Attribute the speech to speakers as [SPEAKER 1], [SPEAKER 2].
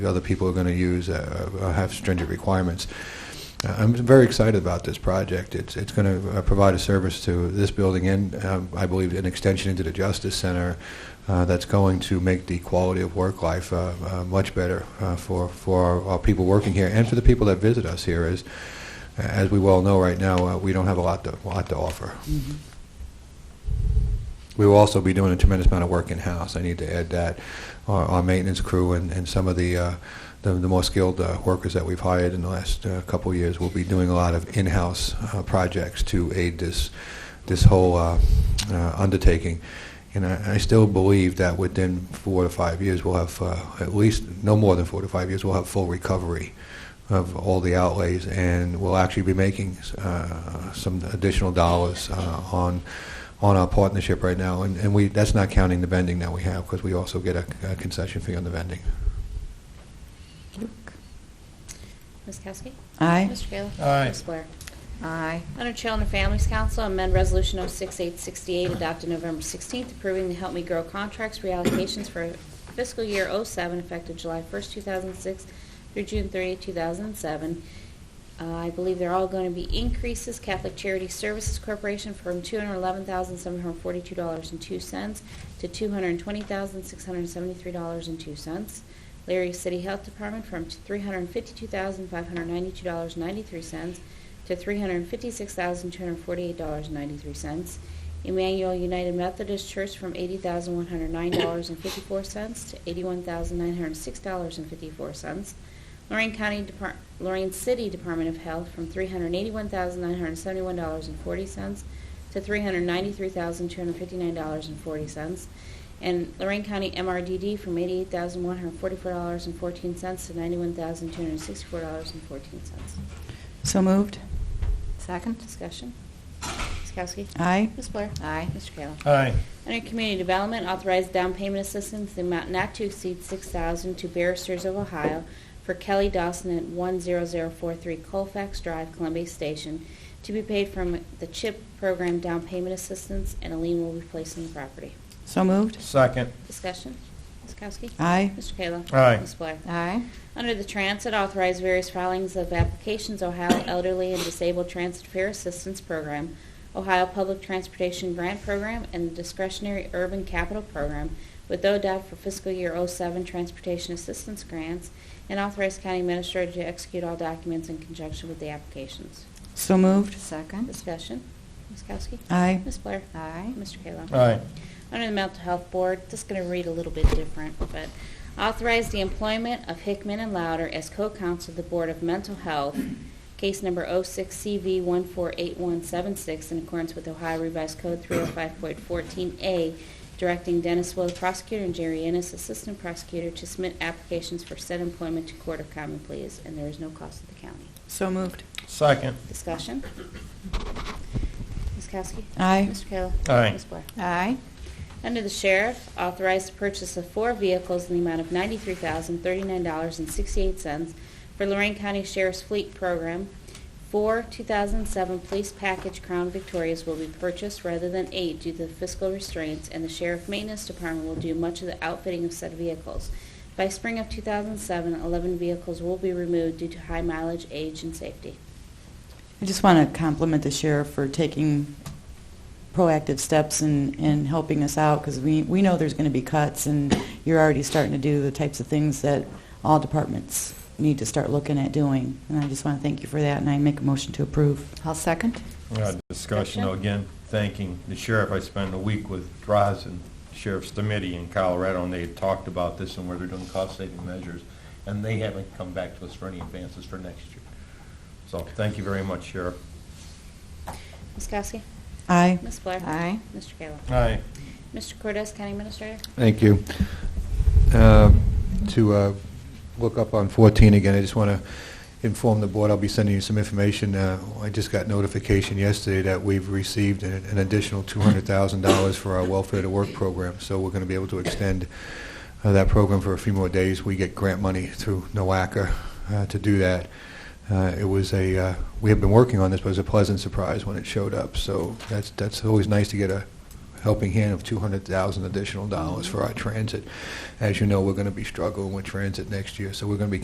[SPEAKER 1] other people are going to use uh, uh, have stringent requirements. Uh, I'm very excited about this project. It's it's going to provide a service to this building and, um, I believe, an extension into the Justice Center uh, that's going to make the quality of work life uh, uh, much better uh, for for our, our people working here and for the people that visit us here. As as we well know, right now uh, we don't have a lot to lot to offer. We will also be doing a tremendous amount of work in-house. I need to add that. Our, our maintenance crew and, and some of the, uh, the, the more skilled uh, workers that we've hired in the last uh, couple of years will be doing a lot of in-house uh, projects to aid this, this whole uh, uh, undertaking. And I, I still believe that within four to five years, we'll have uh, at least, no more than four to five years, we'll have full recovery of all the outlays, and we'll actually be making uh, some additional dollars uh, on on our partnership right now, and, and we that's not counting the vending that we have because we also get a, a concession fee on the vending.
[SPEAKER 2] Ms. Kowski?
[SPEAKER 3] Aye.
[SPEAKER 2] Mr. Kayla?
[SPEAKER 4] Aye.
[SPEAKER 2] Ms. Blair?
[SPEAKER 3] Aye.
[SPEAKER 2] Under Children and Families Council, amend Resolution 06868 adopted November 16th, approving the Help Me Grow contracts reallocations for fiscal year 07 effective July 1st, 2006 through June 30, 2007. Uh, I believe they're all going to be increases. Catholic Charity Services Corporation from $211,742.02 to $220,673.02. Larry City Health Department from $352,592.93 to $356,248.93. Emmanuel United Methodist Church from $80,109.54 to $81,906.54. Lorraine County Depart- Lorraine City Department of Health from $381,971.40 to $393,259.40. And Lorraine County MRDD from $88,144.14 to $91,264.14.
[SPEAKER 3] So moved.
[SPEAKER 2] Second. Discussion. Ms. Kowski?
[SPEAKER 3] Aye.
[SPEAKER 2] Ms. Blair? Aye. Mr. Kayla?
[SPEAKER 4] Aye.
[SPEAKER 2] Under Community Development, authorize down payment assistance in the amount not to exceed 6000 to Barristers of Ohio for Kelly Dawson at 10043 Colfax Drive, Columbia Station, to be paid from the CHIP program down payment assistance, and a lien will be placed on the property.
[SPEAKER 3] So moved.
[SPEAKER 4] Second.
[SPEAKER 2] Discussion. Ms. Kowski?
[SPEAKER 3] Aye.
[SPEAKER 2] Mr. Kayla?
[SPEAKER 4] Aye.
[SPEAKER 2] Ms. Blair?
[SPEAKER 3] Aye.
[SPEAKER 2] Under the Transit, authorize various filings of applications, Ohio Elderly and Disabled Transit Fair Assistance Program, Ohio Public Transportation Grant Program, and Discretionary Urban Capital Program with ODOT for fiscal year 07 transportation assistance grants, and authorize county administrator to execute all documents in conjunction with the applications.
[SPEAKER 3] So moved.
[SPEAKER 5] Second.
[SPEAKER 2] Discussion. Ms. Kowski?
[SPEAKER 3] Aye.
[SPEAKER 2] Ms. Blair?
[SPEAKER 5] Aye.
[SPEAKER 2] Mr. Kayla?
[SPEAKER 4] Aye.
[SPEAKER 2] Under the Mental Health Board, just going to read a little bit different, but authorize the employment of Hickman and Louder as co-counsel of the Board of Mental Health, case number 06CV148176, in accordance with Ohio Revised Code 305.14A, directing Dennis Will, prosecutor, and Jerry Ennis, assistant prosecutor, to submit applications for said employment to Court of Common Pleas, and there is no cost to the county.
[SPEAKER 3] So moved.
[SPEAKER 4] Second.
[SPEAKER 2] Discussion? Ms. Kowski?
[SPEAKER 3] Aye.
[SPEAKER 2] Mr. Kayla?
[SPEAKER 4] Aye.
[SPEAKER 2] Ms. Blair?
[SPEAKER 5] Aye.
[SPEAKER 2] Under the sheriff, authorized the purchase of four vehicles in the amount of $93,039.68 for Lorraine County Sheriff's Fleet Program. Four 2007 Police Package Crown Victorias will be purchased rather than eight due to the fiscal restraints, and the Sheriff Maintenance Department will do much of the outfitting of said vehicles. By spring of 2007, 11 vehicles will be removed due to high mileage, age, and safety.
[SPEAKER 3] I just want to compliment the sheriff for taking proactive steps and, and helping us out because we, we know there's going to be cuts and you're already starting to do the types of things that all departments need to start looking at doing. And I just want to thank you for that and I make a motion to approve.
[SPEAKER 5] I'll second.
[SPEAKER 4] Uh, Discussion, though, again, thanking the sheriff. I spent a week with Droz and Sheriff's Committee in Colorado, and they had talked about this and where they're doing cost-saving measures, and they haven't come back to us for any advances for next year. So thank you very much, Sheriff.
[SPEAKER 2] Ms. Kowski?
[SPEAKER 3] Aye.
[SPEAKER 2] Ms. Blair?
[SPEAKER 5] Aye.
[SPEAKER 2] Mr. Kayla?
[SPEAKER 4] Aye.
[SPEAKER 2] Mr. Cortez, County Administrator?
[SPEAKER 1] Thank you. Uh, To uh, look up on 14 again, I just want to inform the board, I'll be sending you some information. Uh, I just got notification yesterday that we've received an an additional $200,000 for our Welfare to Work program, so we're going to be able to extend uh, that program for a few more days. We get grant money through NOACA uh, to do that. Uh, It was a, uh, we have been working on this, but it was a pleasant surprise when it showed up, so that's, that's always nice to get a helping hand of 200,000 additional dollars for our transit. As you know, we're going to be struggling with transit next year, so we're going to be